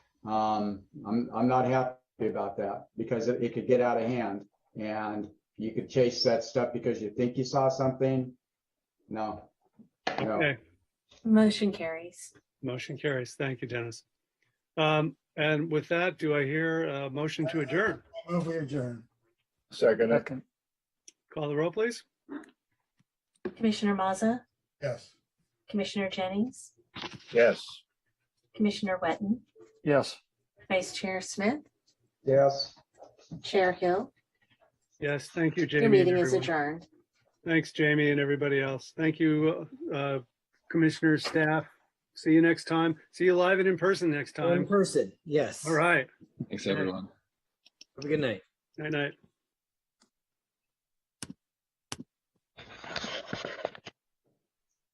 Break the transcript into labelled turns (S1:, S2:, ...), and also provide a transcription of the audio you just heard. S1: Um, I'm, I'm not happy about that because it, it could get out of hand and you could chase that stuff because you think you saw something. No. No,
S2: Okay,
S3: Motion carries.
S2: motion carries. Thank you, Dennis. Um, and with that, do I hear a motion to adjourn?
S4: Move we adjourn.
S5: Second, it.
S6: Second,
S2: Call the roll, please.
S3: Commissioner Mazza,
S4: Yes.
S3: Commissioner Jennings,
S5: yes.
S3: Commissioner Wetton,
S6: yes.
S3: Vice Chair Smith,
S1: yes.
S3: Chair Hill.
S2: Yes, thank you, Jamie. and
S3: Your meeting is
S2: everyone.
S3: adjourned.
S2: Thanks, Jamie and everybody else. Thank you, uh, commissioners, staff. See you next time. See you live and in person next
S7: In
S2: time.
S7: person, yes.
S2: All right.
S8: Thanks,
S2: Yeah.
S8: everyone.
S7: Have a good night.
S2: Night night.